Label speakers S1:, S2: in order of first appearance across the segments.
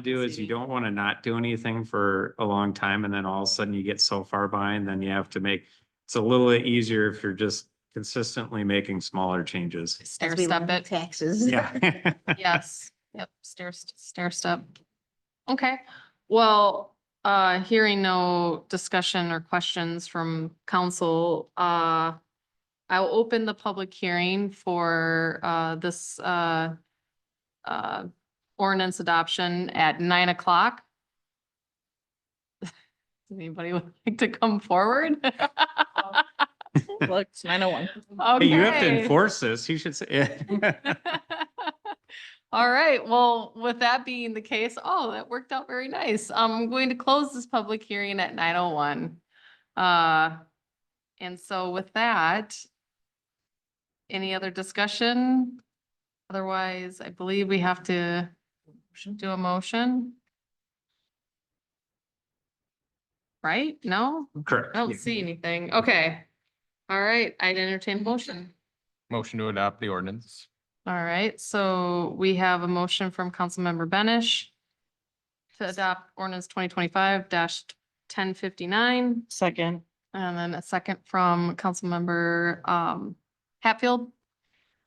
S1: do is you
S2: Saving.
S1: don't want to not do anything for a long time and then all of a sudden you get so far behind, then you have to make. It's a little bit easier if you're just consistently making smaller changes.
S2: Stair
S3: As we
S2: step
S3: learn
S2: it.
S3: Taxes.
S1: Yeah.
S2: Yes, yep, stair, st- stair step. Okay, well, uh, hearing no discussion or questions from council, uh, I will open the public hearing for, uh, this, uh, uh, ordinance adoption at nine o'clock. Does Anybody would like to come forward?
S4: Look, it's nine oh one.
S1: Hey, You have to
S2: Okay.
S1: enforce this. You should say.
S2: All right, well, with that being the case, oh, that worked out very nice. I'm going to close this public hearing at nine oh one. Uh, and so with that, any other discussion? Otherwise, I believe we have to do a motion. Right? No? I
S1: Correct.
S2: don't Oh, see anything. Okay. All right, I'd entertain motion.
S5: Motion to adopt the ordinance.
S2: All right, so we have a motion from Councilmember Benish to adopt ordinance twenty twenty-five ten fifty-nine,
S4: Second.
S2: and then a second from Councilmember um Hatfield.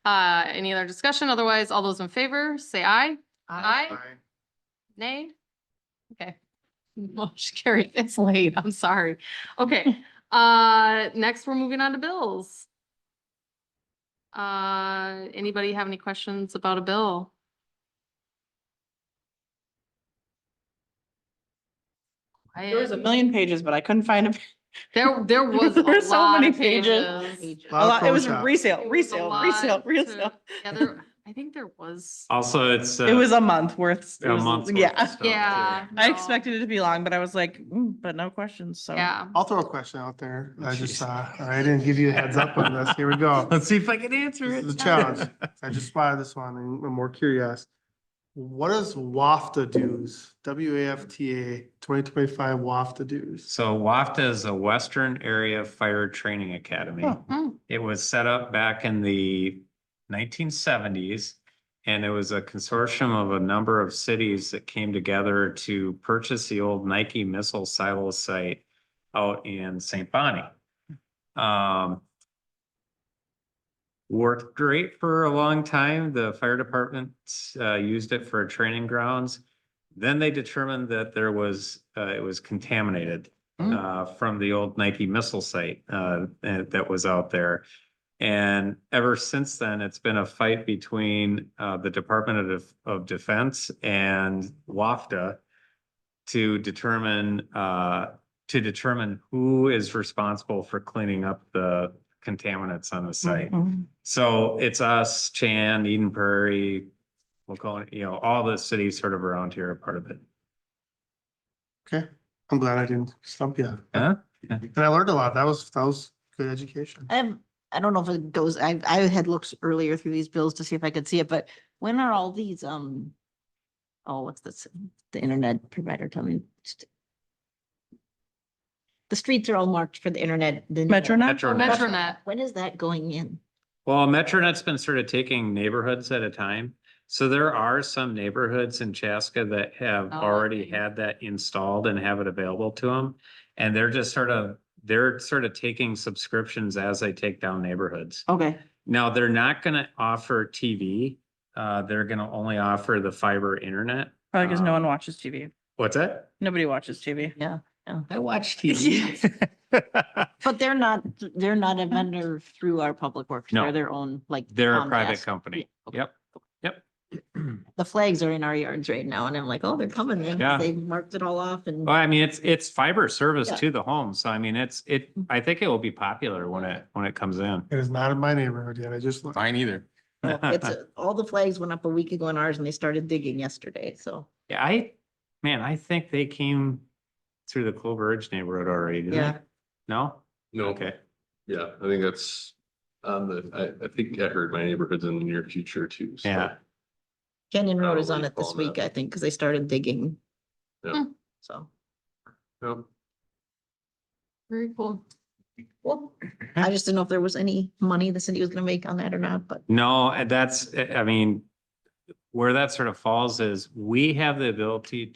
S2: Uh, any other discussion? Otherwise, all those in favor, say aye. Aye. Nay? Okay. Motion carried. It's late. I'm sorry. Okay, uh, next we're moving on to bills. Uh, anybody have any questions about a bill?
S4: There was a million pages, but I couldn't find a,
S2: There, there was
S4: There were
S2: a
S4: so
S2: lot
S4: many
S2: of
S4: pages.
S2: pages.
S4: a lot, it was
S6: Photoshop.
S4: resale,
S2: It was a
S4: resale,
S2: lot
S4: resale,
S2: to-
S4: resale.
S2: Yeah, there, I think there was.
S1: Also, it's.
S4: It was a month worth. It
S1: A
S4: was-
S1: month. worth of
S4: Yeah.
S1: stuff, too.
S2: Yeah.
S4: I
S2: no.
S4: expected it to be long, but I was like, mm, but no questions, so.
S2: Yeah.
S6: I'll throw a question out there. I just
S1: Oh, Jeez.
S6: saw, I didn't give you a heads up on this. Here we go.
S1: Let's see if I can answer
S6: This
S1: it.
S6: is a challenge. I just spotted this one and I'm more curious. What is WAFTA dues? W A F T A twenty twenty-five WAFTA dues.
S1: So WAFTA is a Western Area Fire Training Academy.
S4: Oh.
S2: Hmm.
S1: It was set up back in the nineteen seventies. And it was a consortium of a number of cities that came together to purchase the old Nike missile silo site out in St. Bonnie. Um, worked great for a long time. The fire department uh, used it for training grounds. Then they determined that there was, uh, it was contaminated
S4: Mm.
S1: uh, from the old Nike missile site uh, and- that was out there. And ever since then, it's been a fight between uh, the Department of Def- of Defense and WAFTA to determine uh, to determine who is responsible for cleaning up the contaminants on the site.
S4: Mhm.
S1: So it's us, Chan, Eden Prairie, we'll call it, you know, all the cities sort of around here are part of it.
S6: Okay, I'm glad I didn't stump you.
S1: Huh?
S6: And I learned a lot. That was, that was good education.
S3: I have, I don't know if it goes, I, I had looked earlier through these bills to see if I could see it, but when are all these, um, oh, what's this, the internet provider, tell me. The streets are all marked for the internet. the new-
S4: Metronet?
S1: Metronet.
S2: Metronet.
S3: When is that going in?
S1: Well, Metronet's been sort of taking neighborhoods at a time. So there are some neighborhoods in Chaska that have
S2: Oh,
S1: already
S2: okay.
S1: had that installed and have it available to them. And they're just sort of, they're sort of taking subscriptions as they take down neighborhoods.
S3: Okay.
S1: Now, they're not gonna offer TV. Uh, they're gonna only offer the fiber internet.
S4: Probably because no
S1: Um,
S4: one watches TV.
S1: What's that?
S4: Nobody watches TV.
S3: Yeah,
S1: I watch TV.
S3: but they're not, they're not a vendor through our public works.
S1: No.
S3: They're their own, like.
S1: They're a private
S3: Comcast.
S1: company.
S3: Okay.
S1: Yep, yep.
S3: The flags are in our yards right now and I'm like, oh, they're coming. in.
S1: Yeah. Oh,
S3: They marked it all off and.
S1: Well, I mean, it's, it's fiber service
S3: Yeah. Mm-hmm.
S1: to the home. So I mean, it's, it, I think it will be popular when it, when it comes in.
S6: It is not in my neighborhood yet. I just looked.
S5: Mine either.
S3: Well, It's, uh, all the flags went up a week ago in ours and they started digging yesterday, so.
S1: Yeah, I, man, I think they came through the Clover Ridge neighborhood already, didn't they?
S3: Yeah.
S1: No?
S7: No.
S1: Okay.
S7: Yeah, I think that's on the, I, I think I heard my neighborhood's in the near future too. so.
S1: Yeah.
S3: Canyon Road is on
S7: Probably
S3: it this
S7: fall now.
S3: week, I think, because they started digging.
S2: Hmm.
S7: Yeah.
S3: So,
S7: Yep.
S2: Very cool.
S3: well, I just didn't know if there was any money the city was gonna make on that or not, but
S1: No, and that's, I I mean, where that sort of falls is we have the ability